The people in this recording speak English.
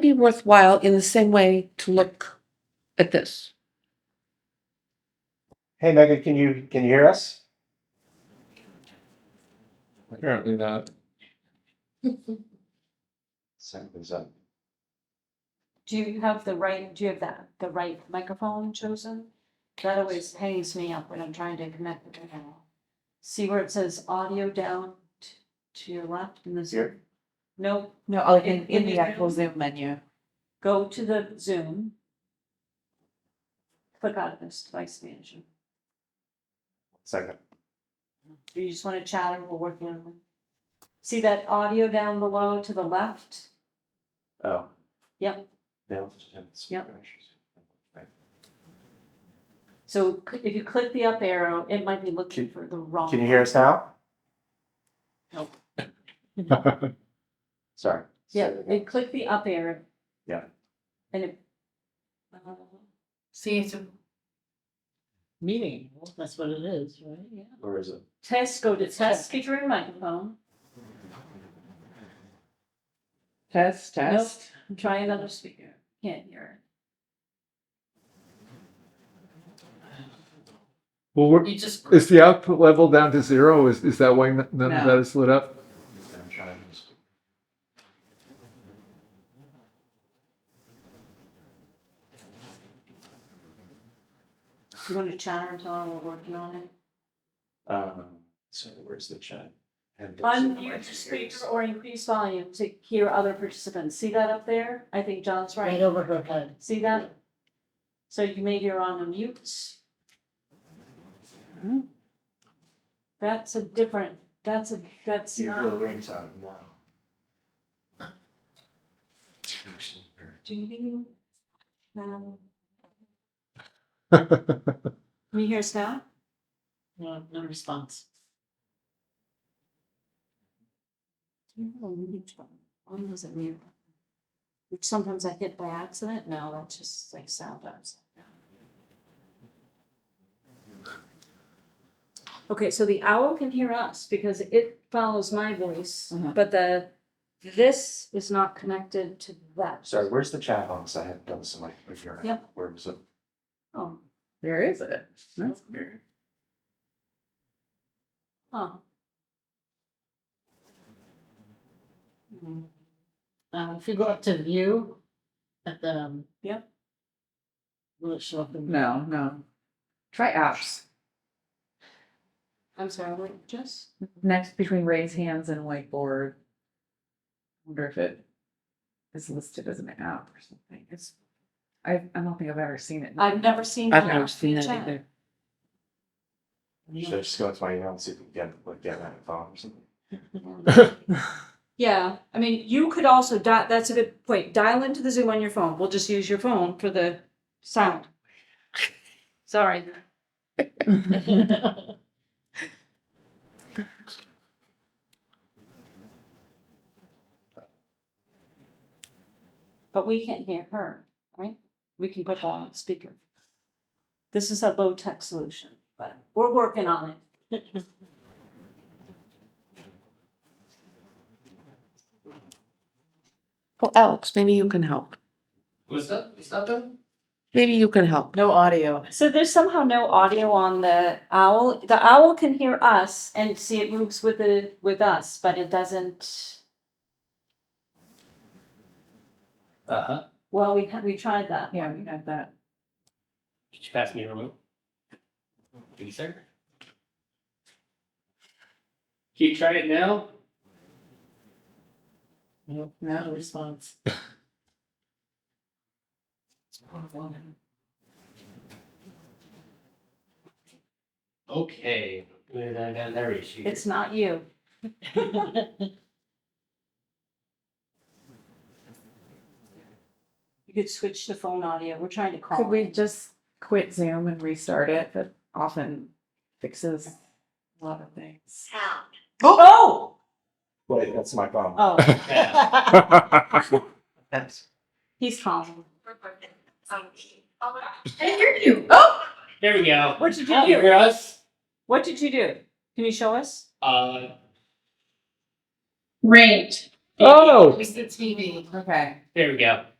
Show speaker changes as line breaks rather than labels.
be worthwhile in the same way to look at this.
Hey Megan, can you, can you hear us?
Apparently not.
Something's up.
Do you have the right, do you have that, the right microphone chosen? That always hangs me up when I'm trying to connect the camera. See where it says audio down t- to your left in the Zoom?
Here.
Nope,
No, like
In-
in, in
in
the
the
actual
Zoom?
Zoom menu.
go to the Zoom. Click out of this device manager.
Second.
Do you just want to chat and we're working on it? See that audio down below to the left?
Oh.
Yep.
Yeah.
Yep. So c- if you click the up arrow, it might be looking for the wrong.
Can you hear us now?
Nope.
Sorry.
Yeah, and click the up arrow.
Yeah.
And it.
See, it's.
meeting, that's what it is, right? Yeah.
Or is it?
Test, go to test feature and microphone,
Test, test.
and try another speaker, can't hear.
Well, we're,
You just,
is the output level down to zero? Is, is that why n- none of
No.
that is lit up?
I'm trying to just-
You want to chat or tell them we're working on it?
Um, so where's the chat? And-
Unmute the speaker or increase volume to hear other participants, see that up there? I think John's
right
right,
over her head.
see that? So you may hear on a mute. That's a different, that's a, that's
See, your
not,
rings out now.
do you? um, Can you hear us now?
No, no response.
One was it mute? Which sometimes I hit by accident, no, that's just like sound does. Okay, so the owl can hear us because it follows my voice,
Uh-huh.
but the, this is not connected to that.
Sorry, where's the chat box? I had done some like.
Yep.
Where was it?
Oh,
Where is it? That's weird.
huh.
Mm-hmm. Um, if you go up to view at the. um,
Yep.
Will it show up in?
No, no. Try apps.
I'm sorry, wait, just,
Next between raise hands and whiteboard. Wonder if it is listed as an app or something. It's, I, I don't think I've ever seen it.
I've never seen.
I've
that
never seen it
chat.
either.
Should I just go into my email and see if we can get, like, get that phone or something?
Yeah, I mean, you could also di- that's a good point, dial into the Zoom on your phone, we'll just use your phone for the sound. Sorry. But we can't hear her, right? We can put her on speaker. This is a low tech solution, but we're working on it.
Well, Alex, maybe you can help.
What's that? What's that then?
Maybe you can help.
No audio.
So there's somehow no audio on the owl. The owl can hear us and see it moves with the with us, but it doesn't.
Uh huh.
Well, we had- we tried that.
Yeah, we had that.
Did you pass me your remote? Thank you, sir. Can you try it now?
No, no response.
Okay. Good, I got another issue.
It's not you. You could switch to phone audio. We're trying to call.
Could we just quit Zoom and restart it? That often fixes a lot of things.
Oh!
Wait, that's my phone.
Oh,
Yeah.
That's.
he's calling.
There we go.
What did
Can
you
you
do?
hear us?
Oh, What did you do? Can you show us?
Uh,
Oh!
It's the TV.
Okay.
There we go.